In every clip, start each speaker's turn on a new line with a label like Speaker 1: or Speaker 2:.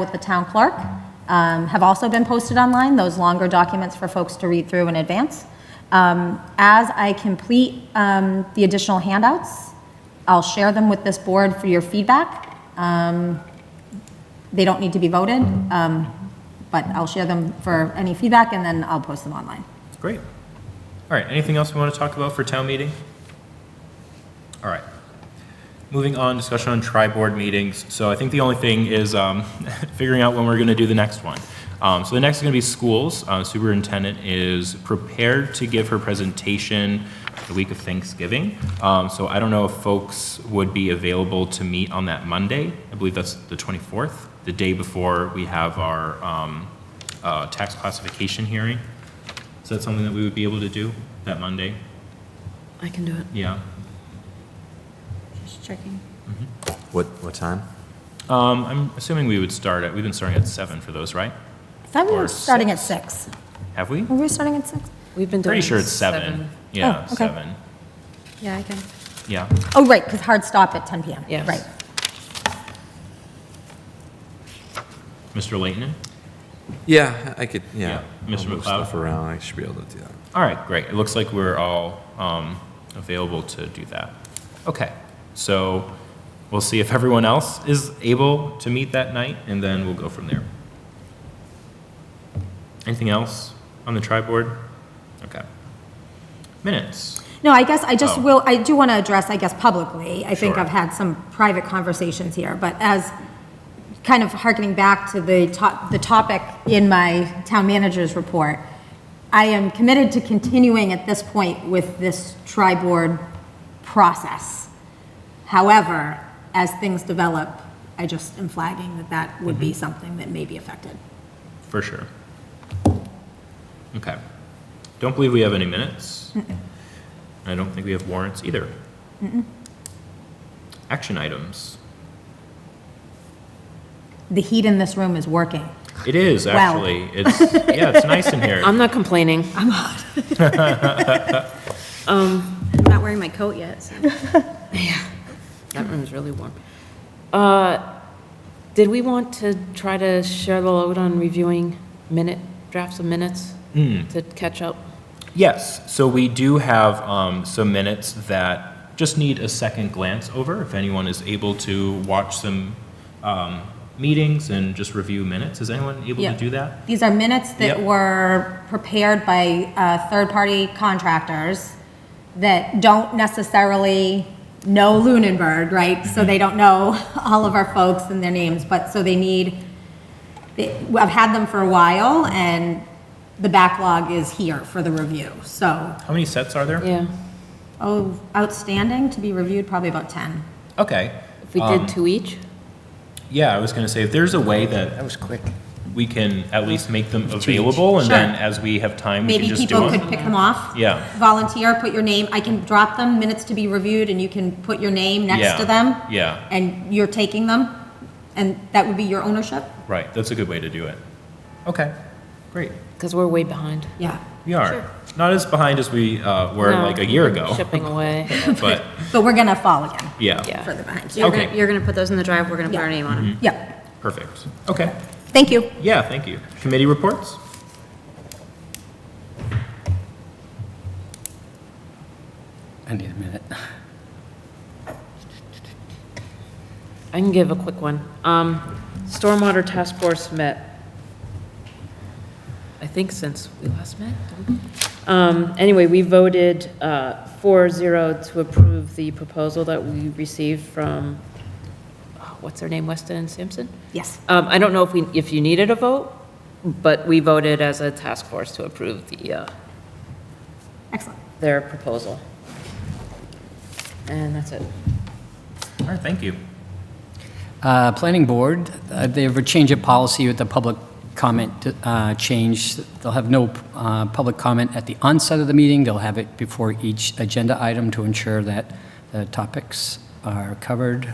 Speaker 1: with the town clerk um, have also been posted online, those longer documents for folks to read through in advance. Um, As I complete um, the additional handouts, I'll share them with this board for your feedback. Um, They don't need to be voted, um, but I'll share them for any feedback, and then I'll post them online.
Speaker 2: Great. All right, anything else we want to talk about for town meeting? All right. Moving on, discussion on tri-board meetings. So I think the only thing is um, figuring out when we're going to do the next one. Um, So the next is going to be schools. Uh, Superintendent is prepared to give her presentation the week of Thanksgiving. Um, So I don't know if folks would be available to meet on that Monday. I believe that's the 24th, the day before we have our um, uh, tax classification hearing. Is that something that we would be able to do that Monday?
Speaker 3: I can do it.
Speaker 2: Yeah.
Speaker 3: Just checking.
Speaker 4: What, what time?
Speaker 2: Um, I'm assuming we would start at, we've been starting at seven for those, right?
Speaker 1: That
Speaker 2: Or
Speaker 1: was starting at six.
Speaker 2: Have we?
Speaker 1: Were we starting at six?
Speaker 3: We've been doing.
Speaker 2: Pretty sure it's seven. Yeah,
Speaker 1: Oh, okay.
Speaker 2: seven.
Speaker 3: Yeah, I can.
Speaker 2: Yeah.
Speaker 1: Oh, right, because hard stop at 10 PM.
Speaker 3: Yes.
Speaker 1: Right.
Speaker 2: Mr. Leighton?
Speaker 4: Yeah, I could,
Speaker 2: Yeah,
Speaker 4: yeah.
Speaker 2: Mr.
Speaker 4: I'll move
Speaker 2: McLeod?
Speaker 4: Stuff around, I should be able to do that.
Speaker 2: All right, great. It looks like we're all um, available to do that. Okay, so we'll see if everyone else is able to meet that night, and then we'll go from there. Anything else on the tri-board? Okay. Minutes.
Speaker 1: No, I guess I just
Speaker 2: Oh.
Speaker 1: will, I do want to address, I guess, publicly. I think
Speaker 2: Sure.
Speaker 1: I've had some private conversations here, but as kind of harkening back to the top, the topic in my town manager's report, I am committed to continuing at this point with this tri-board process. However, as things develop, I just am flagging that that would
Speaker 2: Mm-hmm.
Speaker 1: be something that may be affected.
Speaker 2: For sure. Okay. Don't believe we have any minutes. I don't think we have warrants either. Action items.
Speaker 1: The heat in this room is working.
Speaker 2: It is,
Speaker 1: Wow.
Speaker 2: actually. It's, yeah, it's nice in here.
Speaker 3: I'm not complaining. I'm hot. Um, I'm not wearing my coat yet, so. Yeah, that room's really warm. Uh, did we want to try to share the load on reviewing minute, drafts of minutes?
Speaker 2: Hmm.
Speaker 3: To catch up?
Speaker 2: Yes, so we do have um, some minutes that just need a second glance over. If anyone is able to watch some um, meetings and just review minutes, is anyone able to
Speaker 1: Yeah.
Speaker 2: do that?
Speaker 1: These are minutes that
Speaker 2: Yep.
Speaker 1: were prepared by uh, third-party contractors that don't necessarily know Lunenburg, right?
Speaker 2: Mm-hmm.
Speaker 1: So they don't know all of our folks and their names, but, so they need, they- I've had them for a while, and the backlog is here for the review. So,
Speaker 2: How many sets are there?
Speaker 3: Yeah.
Speaker 1: oh, outstanding to be reviewed, probably about 10.
Speaker 2: Okay.
Speaker 3: If we
Speaker 2: Um.
Speaker 3: did two each?
Speaker 2: Yeah, I was going to say, if there's a way that
Speaker 5: That was quick.
Speaker 2: we can at least make them available, and then as we have time, we can
Speaker 1: Maybe
Speaker 2: just do
Speaker 1: people could
Speaker 2: them.
Speaker 1: pick them off.
Speaker 2: Yeah.
Speaker 1: Volunteer, put your name, I can drop them, minutes to be reviewed, and you can put your name
Speaker 2: Yeah,
Speaker 1: next to them.
Speaker 2: yeah.
Speaker 1: And you're taking them, and that would be your ownership?
Speaker 2: Right, that's a good way to do it. Okay, great.
Speaker 3: Because we're way behind.
Speaker 1: Yeah.
Speaker 2: We are. Not as behind as we uh, were
Speaker 3: No,
Speaker 2: like a year ago,
Speaker 3: Shipping away.
Speaker 2: but,
Speaker 1: But we're gonna fall again,
Speaker 2: yeah,
Speaker 3: Yeah.
Speaker 1: further behind.
Speaker 2: You're gonna- Okay.
Speaker 3: you're gonna put those in the drive, we're gonna
Speaker 1: Oh. put our name
Speaker 3: on them.
Speaker 1: Yeah,
Speaker 2: perfect. Okay,
Speaker 1: thank you.
Speaker 2: yeah, thank you. Committee reports?
Speaker 5: I need a minute.
Speaker 3: I can give a quick one. Um, Stormwater Task Force met, I think since we last met. didn't we? Um, Anyway, we voted uh, 4-0 to approve the proposal that we received from, uh, what's her name, Weston and Sampson?
Speaker 1: Yes.
Speaker 3: Um, I don't know if we, if you needed a vote, but we voted as a task force to approve the, uh,
Speaker 1: Excellent.
Speaker 3: their proposal. And that's it.
Speaker 2: All right, thank you.
Speaker 5: Uh, Planning Board, uh, they have a change of policy with the public comment uh, change. They'll have no uh, public comment at the onset of the meeting. They'll have it before each agenda item to ensure that the topics are covered.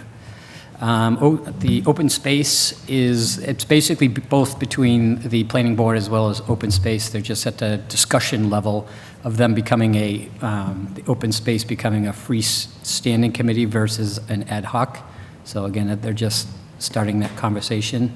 Speaker 5: Um, o- The open space is, it's basically b- both between the Planning Board as well as open space. They're just at the discussion level of them becoming a, um, the open space becoming a freestanding committee versus an ad hoc. So again, they're just starting that conversation.